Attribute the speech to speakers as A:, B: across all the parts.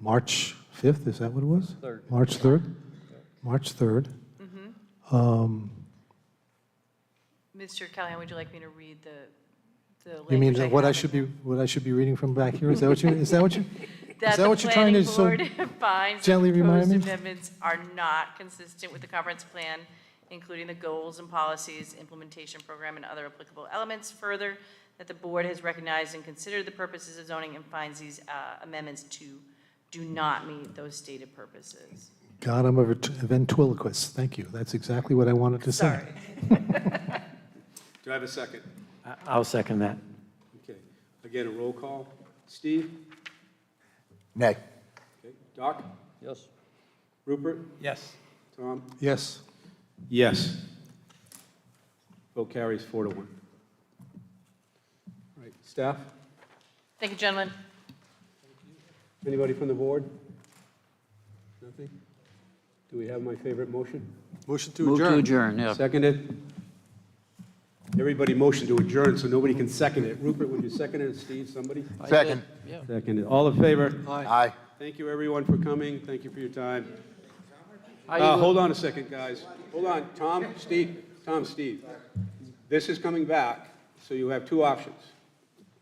A: March 5th, is that what it was?
B: Third.
A: March 3rd? March 3rd. Um,
C: Mr. Callahan, would you like me to read the, the language?
A: You mean that what I
C: have in
A: should
C: here?
A: be, what I should be reading from back here? Is that what you, is that what you, is
C: That
A: that
C: the
A: what you're trying to?
C: planning
A: so-
C: board finds that
A: gently
C: the
A: remind
C: proposed
A: me?
C: amendments are not consistent with the conference plan, including the goals and policies, implementation program, and other applicable elements. Further, that the board has recognized and considered the purposes of zoning and finds these uh, amendments to do not meet those stated purposes.
A: God, I'm a vert- a ventriloquist. Thank you. That's exactly what I wanted to say.
C: Sorry.
D: Do I have a second?
B: I- I'll second that.
D: Okay. Again, a roll call. Steve?
E: Nay.
D: Okay. Doc?
B: Yes.
D: Rupert?
B: Yes.
D: Tom?
A: Yes.
D: Yes. Vote carries four to one. All right, staff?
C: Thank you, gentlemen.
D: Anybody from the board? Nothing? Do we have my favorite motion?
A: Motion to
F: Move to adjourn, yeah.
D: Seconded? Everybody motioned to adjourn, so nobody can second it. Rupert, would you second it, or Steve, somebody?
E: Second.
D: Seconded. All in favor?
E: Aye.
D: Thank you, everyone, for coming. Thank you for your time.
F: How you
D: Uh,
F: look-
D: hold on a second, guys. Hold on, Tom, Steve, Tom, Steve. This is coming back, so you have two options.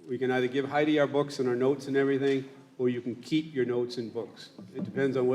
D: We can either give Heidi our books and our notes and everything, or you can keep your notes and books. It depends on whether